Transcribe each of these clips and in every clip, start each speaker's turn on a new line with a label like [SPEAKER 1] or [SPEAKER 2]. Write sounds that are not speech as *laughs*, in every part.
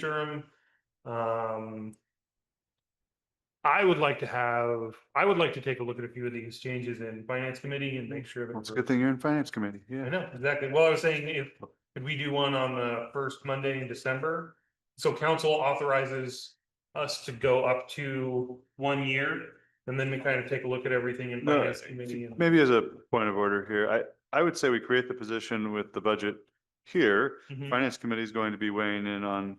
[SPEAKER 1] interim. Um. I would like to have, I would like to take a look at a few of these changes in finance committee and make sure. that
[SPEAKER 2] Well, It's a
[SPEAKER 1] we're-
[SPEAKER 2] good thing you're in finance committee,
[SPEAKER 1] I
[SPEAKER 2] yeah.
[SPEAKER 1] know, exactly. Well, I was saying if, could we do one on the first Monday in December? So council authorizes us to go up to one year and then we kind of take a look at everything in
[SPEAKER 2] No,
[SPEAKER 1] finance committee and.
[SPEAKER 2] Maybe as a point of order here, I, I would say we create the position with the budget here.
[SPEAKER 1] Mhm.
[SPEAKER 2] Finance committee is going to be weighing in on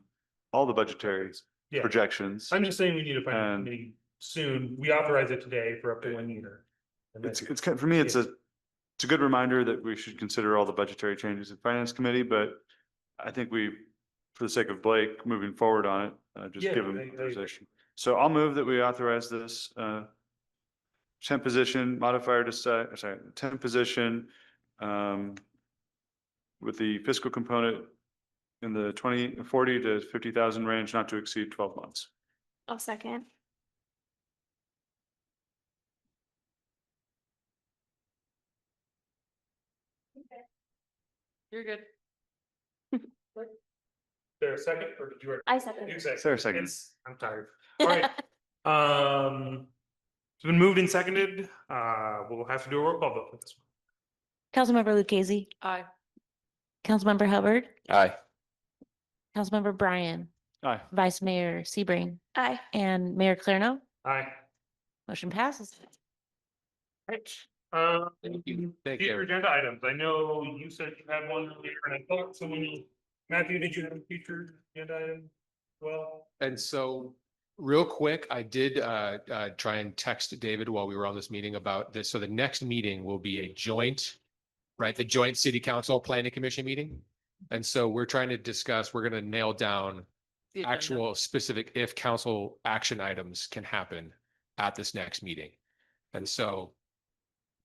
[SPEAKER 2] all the budgetary
[SPEAKER 1] Yeah,
[SPEAKER 2] projections.
[SPEAKER 1] I'm just saying we need a finance
[SPEAKER 2] And-
[SPEAKER 1] committee soon. We authorize it today for up to one year. And then-
[SPEAKER 2] It's, it's, kind- for me, it's a, it's a good reminder that we should consider all the budgetary changes in finance committee, but I think we, for the sake of Blake, moving forward on it, uh, just
[SPEAKER 1] Yeah,
[SPEAKER 2] give
[SPEAKER 1] I- I
[SPEAKER 2] him
[SPEAKER 1] agree.
[SPEAKER 2] position. So I'll move that we authorize this, uh, temp position modifier to say, sorry, temp position, um, with the fiscal component in the twenty, forty to fifty thousand range, not to exceed twelve months.
[SPEAKER 3] I'll second.
[SPEAKER 4] You're good.
[SPEAKER 1] There a second or did you?
[SPEAKER 3] I second.
[SPEAKER 1] You say.
[SPEAKER 2] Is there a second?
[SPEAKER 1] It's, I'm tired. All
[SPEAKER 2] *laughs*
[SPEAKER 1] right. Um, it's been moved and seconded. Uh, we'll have to do a roll call vote for this.
[SPEAKER 5] Councilmember Lucchese,
[SPEAKER 4] Aye.
[SPEAKER 5] Councilmember Hubbard,
[SPEAKER 6] Aye.
[SPEAKER 5] Councilmember Bryan,
[SPEAKER 2] Aye.
[SPEAKER 5] Vice Mayor Sebring,
[SPEAKER 3] Aye.
[SPEAKER 5] and Mayor Clarno.
[SPEAKER 1] one. Aye.
[SPEAKER 5] Motion passes.
[SPEAKER 1] Um,
[SPEAKER 6] Thank you. Thank you.
[SPEAKER 1] future agenda items. I know you said you had one earlier and I thought someone, Matthew, did you have a future agenda item? Well,
[SPEAKER 6] And so, real quick, I did uh, uh, try and text David while we were on this meeting about this. So the next meeting will be a joint, right, the joint city council planning commission meeting. And so we're trying to discuss, we're going to nail down
[SPEAKER 4] The agenda.
[SPEAKER 6] actual specific if council action items can happen at this next meeting. And so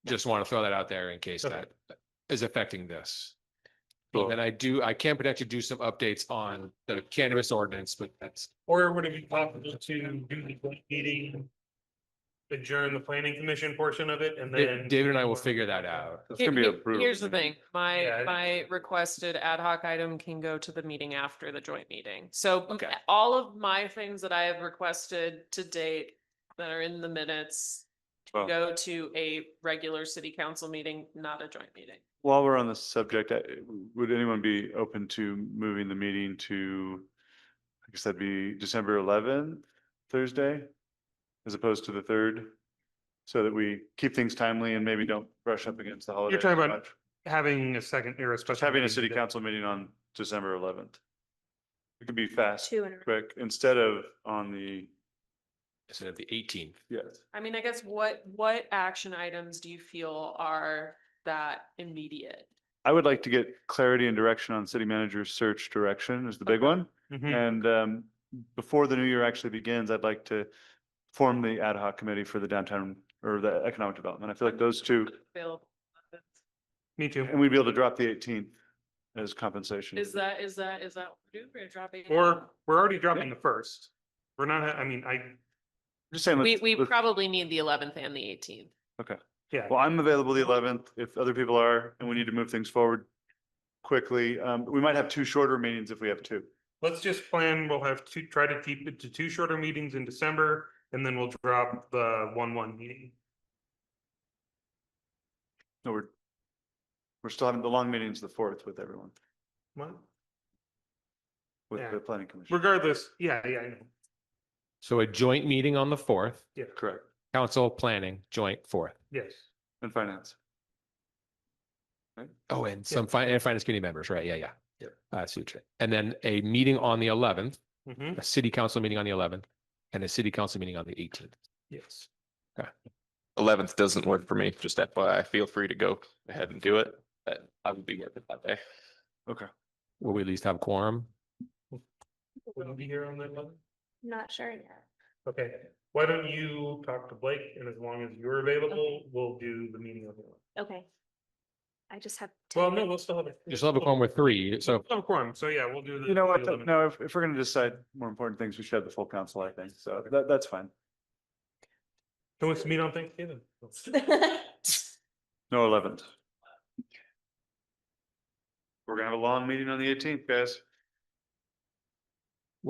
[SPEAKER 6] just want to throw that out there in case
[SPEAKER 1] Okay.
[SPEAKER 6] that is affecting this.
[SPEAKER 2] Cool.
[SPEAKER 6] And I do, I can potentially do some updates on the cannabis ordinance, but that's
[SPEAKER 1] or would it be possible to do the joint meeting? Adjourn the planning commission portion of it and
[SPEAKER 6] Da-
[SPEAKER 1] then.
[SPEAKER 6] David and I will figure that out.
[SPEAKER 2] It's
[SPEAKER 4] Here-
[SPEAKER 2] gonna be a
[SPEAKER 4] here-
[SPEAKER 2] brutal
[SPEAKER 4] Here's the
[SPEAKER 2] meeting.
[SPEAKER 4] thing, my,
[SPEAKER 1] Yeah.
[SPEAKER 4] my requested ad hoc item can go to the meeting after the joint meeting. So
[SPEAKER 6] Okay.
[SPEAKER 4] all of my things that I have requested to date that are in the minutes
[SPEAKER 2] Well-
[SPEAKER 4] go to a regular city council meeting, not a joint meeting.
[SPEAKER 2] While we're on this subject, I- would anyone be open to moving the meeting to, I guess that'd be December eleventh, Thursday? As opposed to the third, so that we keep things timely and maybe don't brush up against the holiday.
[SPEAKER 1] talking about Having a second era.
[SPEAKER 2] Just having a city council meeting on December eleventh. It could be fast,
[SPEAKER 3] Two in a row.
[SPEAKER 2] quick, instead of on the,
[SPEAKER 6] Instead of the eighteenth.
[SPEAKER 2] yes.
[SPEAKER 4] I mean, I guess what, what action items do you feel are that immediate?
[SPEAKER 2] I would like to get clarity and direction on city manager's search direction is the big one.
[SPEAKER 1] Mhm.
[SPEAKER 2] And um, before the new year actually begins, I'd like to form the ad hoc committee for the downtown or the economic development. I feel like those two,
[SPEAKER 4] Available.
[SPEAKER 1] Me too.
[SPEAKER 2] and we'd be able to drop the eighteenth as compensation.
[SPEAKER 4] Is uh, that, is that, is that, do we're dropping? it?
[SPEAKER 1] Or we're already dropping the first. We're not, I mean, I,
[SPEAKER 2] Just saying.
[SPEAKER 4] We,
[SPEAKER 2] let's-
[SPEAKER 4] we
[SPEAKER 2] let's-
[SPEAKER 4] probably need the eleventh and the eighteenth.
[SPEAKER 1] yeah.
[SPEAKER 2] Well, I'm available the eleventh if other people are, and we need to move things forward quickly. Um, we might have two shorter meetings if we have two.
[SPEAKER 1] Let's just plan, we'll have two, try to keep it to two shorter meetings in December, and then we'll drop the one one meeting.
[SPEAKER 2] No, we're, we're still having the long meetings the fourth with everyone,
[SPEAKER 1] Well,
[SPEAKER 2] with
[SPEAKER 1] Yeah.
[SPEAKER 2] the planning commission.
[SPEAKER 1] Regardless, yeah, yeah, I know,
[SPEAKER 6] So a joint meeting on the fourth,
[SPEAKER 1] yeah,
[SPEAKER 2] Correct.
[SPEAKER 6] council planning, joint fourth.
[SPEAKER 1] yes.
[SPEAKER 2] And finance.
[SPEAKER 6] Oh, and some fin- and finance committee members, right? Yeah, yeah. Yep. Uh, so, and then a meeting on the eleventh,
[SPEAKER 1] hmm
[SPEAKER 6] a city council meeting on the eleventh, and a city council meeting on the eighteenth.
[SPEAKER 1] yes.
[SPEAKER 7] Eleventh doesn't work for me, just FYI, feel free to go ahead and do it, but I would be working that day.
[SPEAKER 6] Will we at least have quorum?
[SPEAKER 1] Will you be here on that one?
[SPEAKER 3] Not sure yet.
[SPEAKER 1] Okay, why don't you talk to Blake, and as long as you're available, we'll do the meeting on the one.
[SPEAKER 3] Okay. I just have. to-
[SPEAKER 1] Well, no, we'll still have. a-
[SPEAKER 6] Just have a quorum with three, so
[SPEAKER 1] We'll have a quorum, so yeah, we'll do the.
[SPEAKER 2] You know what,
[SPEAKER 1] the
[SPEAKER 2] though?
[SPEAKER 1] 11th.
[SPEAKER 2] no, if, if we're gonna decide more important things, we should have the full council, I think, so that, that's fine.
[SPEAKER 1] Can we meet on Thanksgiving?
[SPEAKER 2] No, eleventh. We're gonna have a long meeting on the eighteenth, guys.